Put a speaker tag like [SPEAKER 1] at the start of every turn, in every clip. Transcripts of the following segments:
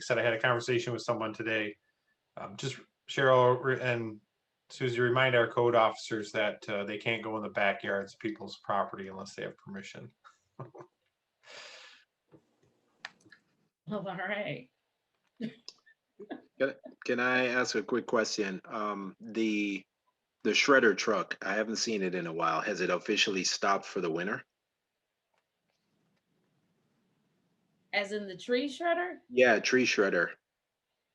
[SPEAKER 1] said, I had a conversation with someone today. Um, just Cheryl re- and Susie, remind our code officers that uh, they can't go in the backyards of people's property unless they have permission.
[SPEAKER 2] Oh, all right.
[SPEAKER 3] Can I ask a quick question? Um, the, the shredder truck, I haven't seen it in a while. Has it officially stopped for the winter?
[SPEAKER 2] As in the tree shredder?
[SPEAKER 3] Yeah, tree shredder.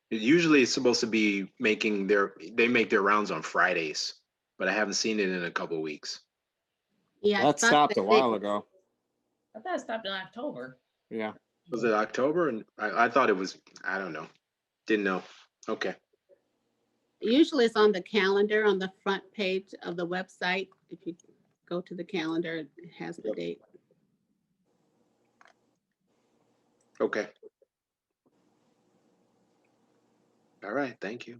[SPEAKER 3] It Usually it's supposed to be making their, they make their rounds on Fridays, but I haven't seen it in a couple weeks.
[SPEAKER 4] Yeah. I
[SPEAKER 5] That
[SPEAKER 4] thought
[SPEAKER 5] stopped
[SPEAKER 4] that
[SPEAKER 5] a
[SPEAKER 4] they-
[SPEAKER 5] while ago.
[SPEAKER 2] I thought it stopped in October.
[SPEAKER 5] Yeah.
[SPEAKER 3] Was it October? And I, I thought it was, I don't know. Didn't know. Okay.
[SPEAKER 4] Usually it's on the calendar on the front page of the website. If you go to the calendar, it has the
[SPEAKER 3] Yep.
[SPEAKER 4] date.
[SPEAKER 3] Okay. All right, thank you.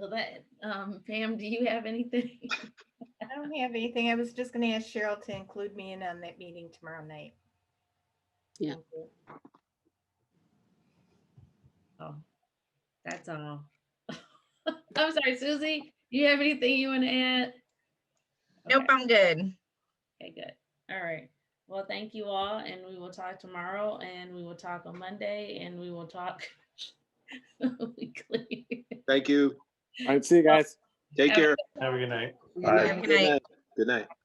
[SPEAKER 2] So that, um, Pam, do you have anything?
[SPEAKER 6] I don't have anything. I was just gonna ask Cheryl to include me in on that meeting tomorrow night.
[SPEAKER 2] Oh, That's all. I'm sorry, Susie, do you have anything you want to add?
[SPEAKER 7] Nope,
[SPEAKER 2] Okay,
[SPEAKER 7] I'm good.
[SPEAKER 2] Okay, good. All right. Well, thank you all and we will talk tomorrow and we will talk on Monday and we will talk weekly.
[SPEAKER 3] Thank you.
[SPEAKER 5] All right. See you guys.
[SPEAKER 3] Take
[SPEAKER 2] Have a
[SPEAKER 3] care.
[SPEAKER 1] Have a good night.
[SPEAKER 4] Good
[SPEAKER 3] All
[SPEAKER 4] night.
[SPEAKER 3] right, Good night. Good night.